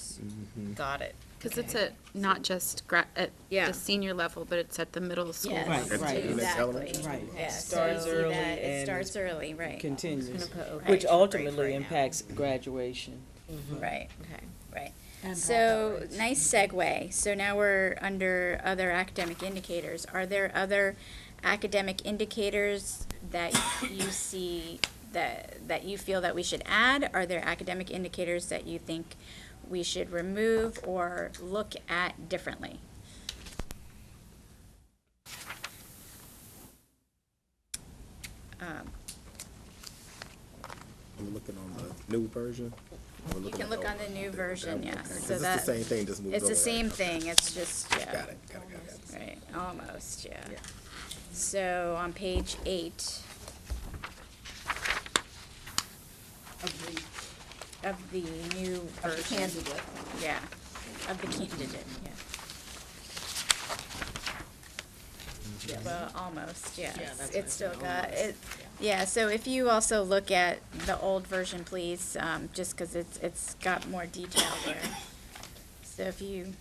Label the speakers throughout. Speaker 1: Mm-hmm.
Speaker 2: Got it.
Speaker 3: Because it's at, not just gra, at
Speaker 2: Yeah.
Speaker 3: the senior level, but it's at the middle school.
Speaker 4: Yes,
Speaker 3: level.
Speaker 5: Right,
Speaker 4: right,
Speaker 5: and it's
Speaker 4: exactly.
Speaker 5: elementary. Right.
Speaker 4: Yeah, so
Speaker 2: Starts
Speaker 4: you see
Speaker 2: early
Speaker 4: that, It
Speaker 2: and
Speaker 4: starts early, right,
Speaker 5: Continues,
Speaker 2: I'm gonna put
Speaker 5: which
Speaker 4: Right, right
Speaker 5: ultimately
Speaker 4: now.
Speaker 5: impacts graduation.
Speaker 1: Mm-hmm.
Speaker 4: right, right.
Speaker 6: And
Speaker 4: So, nice segue. So now we're under other academic indicators. Are there other academic indicators that you see that, that you feel that we should add? Are there academic indicators that you think we should remove or look at differently? Um,
Speaker 1: Are we looking on the new version? Or we're
Speaker 4: You
Speaker 1: looking
Speaker 4: can
Speaker 1: at
Speaker 4: look
Speaker 1: the
Speaker 4: on
Speaker 1: old?
Speaker 4: the new version,
Speaker 1: Okay,
Speaker 4: yes.
Speaker 1: 'cause
Speaker 4: So
Speaker 1: it's the
Speaker 4: that-
Speaker 1: same thing, just moved
Speaker 4: It's the
Speaker 1: over,
Speaker 4: same
Speaker 1: right?
Speaker 4: thing, it's just, yeah.
Speaker 1: Got it, got it, got it, got it.
Speaker 4: Right, almost, yeah.
Speaker 1: Yeah.
Speaker 4: So on page eight of the new version.
Speaker 6: candidate.
Speaker 4: Yeah, of the candidate, yeah. Well, almost, yes. It's still got, it, yeah, so if you also look at the old version, please, um, just because it's, it's got more detail there. So if you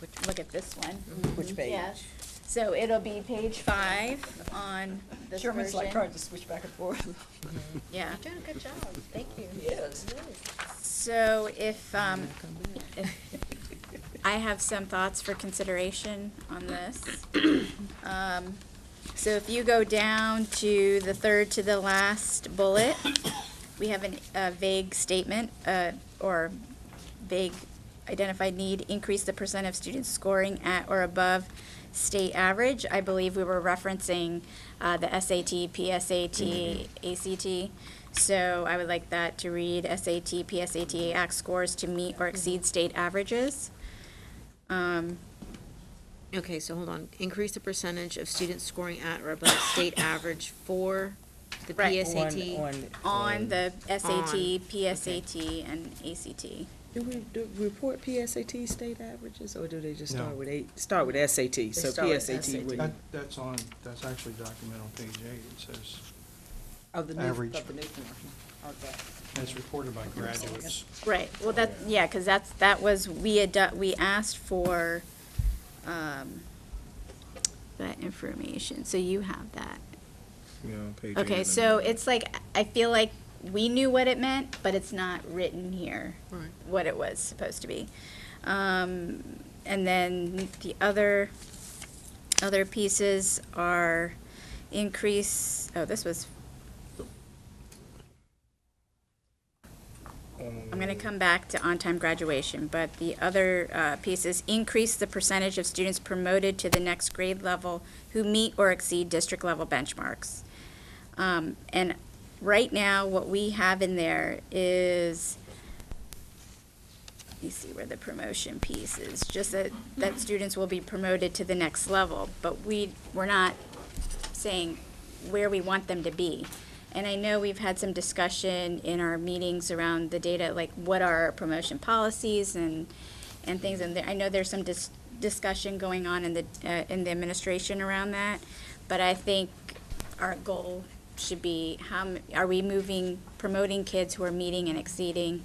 Speaker 4: go- look at this one.
Speaker 6: Mm-hmm.
Speaker 5: Which page?
Speaker 4: Yes. So it'll be page five on this
Speaker 6: Chairman's like
Speaker 4: version.
Speaker 6: trying to switch back and forth.
Speaker 4: Yeah,
Speaker 2: You're doing a good job. Thank you.
Speaker 6: Yes.
Speaker 4: so if, um, I have some thoughts for consideration on this. Um, So if you go down to the third to the last bullet, we have an- a vague statement, uh, or vague identified need, increase the percent of students scoring at or above state average. I believe we were referencing uh, the SAT, PSAT, ACT. So I would like that to read SAT, PSAT, ACT scores to meet or exceed state averages. Um,
Speaker 2: Okay, so hold on. Increase the percentage of students scoring at or above state average for the
Speaker 4: Right.
Speaker 2: PSAT.
Speaker 5: On-
Speaker 4: On the
Speaker 2: okay.
Speaker 4: SAT, PSAT, and ACT.
Speaker 5: Do we, do we report PSAT state averages, or do they just start with eight, start with SAT, so
Speaker 2: start with
Speaker 5: PSAT
Speaker 2: SAT.
Speaker 5: would.
Speaker 7: That, that's on, that's actually documented on page eight. It says,
Speaker 6: Of Oh, the new, of the new
Speaker 7: Average.
Speaker 6: form. Okay.
Speaker 7: as reported by graduates.
Speaker 4: Right, well, that, yeah, because that's, that was, we had, do- we asked for, um, that information, so you have that.
Speaker 1: Yeah, on page eight
Speaker 4: Okay,
Speaker 1: of the
Speaker 4: so
Speaker 1: new-
Speaker 4: it's like, I feel like we knew what it meant, but it's not written here,
Speaker 2: Right.
Speaker 4: what it was supposed to be. Um, and then the other, other pieces are increase, oh, this was, I'm gonna come back to on-time graduation, but the other, uh, pieces, increase the percentage of students promoted to the next grade level who meet or exceed district-level benchmarks. Um, and right now, what we have in there is, you see where the promotion piece is, just that, that students will be promoted to the next level, but we, we're not saying where we want them to be. And I know we've had some discussion in our meetings around the data, like what are our promotion policies and, and things, and there- I know there's some dis- discussion going on in the, uh, in the administration around that, but I think our goal should be, how, m- are we moving, promoting kids who are meeting and exceeding?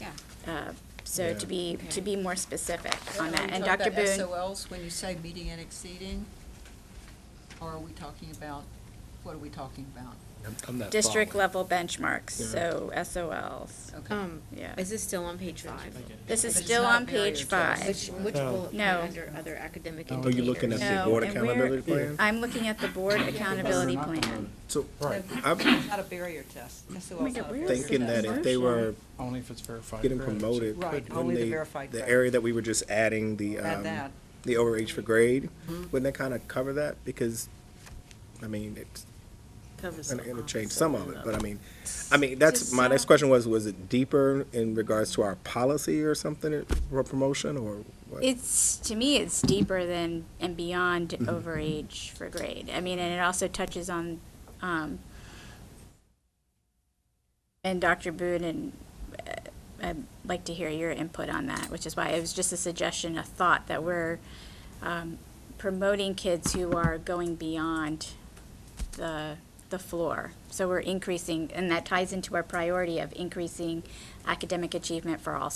Speaker 6: Yeah.
Speaker 4: Uh, so to
Speaker 1: Yeah.
Speaker 4: be, to be more specific on
Speaker 6: Are
Speaker 4: that,
Speaker 6: we
Speaker 4: and
Speaker 6: talking
Speaker 4: Dr.
Speaker 6: about
Speaker 4: Boone.
Speaker 6: SOLs when you say meeting and exceeding? Or are we talking about, what are we talking about?
Speaker 1: I'm- I'm not
Speaker 4: district
Speaker 1: following.
Speaker 4: level benchmarks,
Speaker 1: Yeah.
Speaker 4: so SOLs.
Speaker 6: Okay.
Speaker 2: Um,
Speaker 4: Yeah.
Speaker 2: is this still on page five?
Speaker 4: This is
Speaker 6: But it's
Speaker 4: still
Speaker 6: not
Speaker 4: on page
Speaker 6: Marriott Dress.
Speaker 4: five.
Speaker 2: Which, which
Speaker 7: No.
Speaker 2: bullet point
Speaker 4: No.
Speaker 2: under other academic
Speaker 6: Oh,
Speaker 1: Are you looking at
Speaker 2: indicators?
Speaker 1: the
Speaker 4: No,
Speaker 1: board
Speaker 4: and we're-
Speaker 1: accountability plan?
Speaker 4: I'm looking at the board accountability plan.
Speaker 1: So,
Speaker 7: Right,
Speaker 1: I'm
Speaker 6: Not a barrier test. SOL's
Speaker 4: my God,
Speaker 6: not a
Speaker 4: where is
Speaker 6: barrier
Speaker 1: thinking that
Speaker 6: test.
Speaker 1: if they were
Speaker 7: only if it's verified.
Speaker 1: getting
Speaker 7: credits.
Speaker 1: promoted,
Speaker 6: Right,
Speaker 1: wouldn't
Speaker 6: only the
Speaker 1: they-
Speaker 6: verified
Speaker 1: The
Speaker 6: credit.
Speaker 1: area that we were just adding the,
Speaker 6: Add
Speaker 1: um,
Speaker 6: that. Mm-hmm.
Speaker 1: the overage for grade, wouldn't that kind of cover that? Because, I mean, it's,
Speaker 2: Covers
Speaker 1: and
Speaker 2: a lot.
Speaker 1: it'll change some of it, but I mean, I mean, that's, my next question was, was it deeper in regards to our policy or something for promotion or what?
Speaker 4: It's, to me, it's deeper than and beyond overage for grade. I mean, and it also touches on, um, and Dr. Boone, and uh, I'd like to hear your input on that, which is why it was just a suggestion, a thought that we're, um, promoting kids who are going beyond the, the floor. So we're increasing, and that ties into our priority of increasing academic achievement for all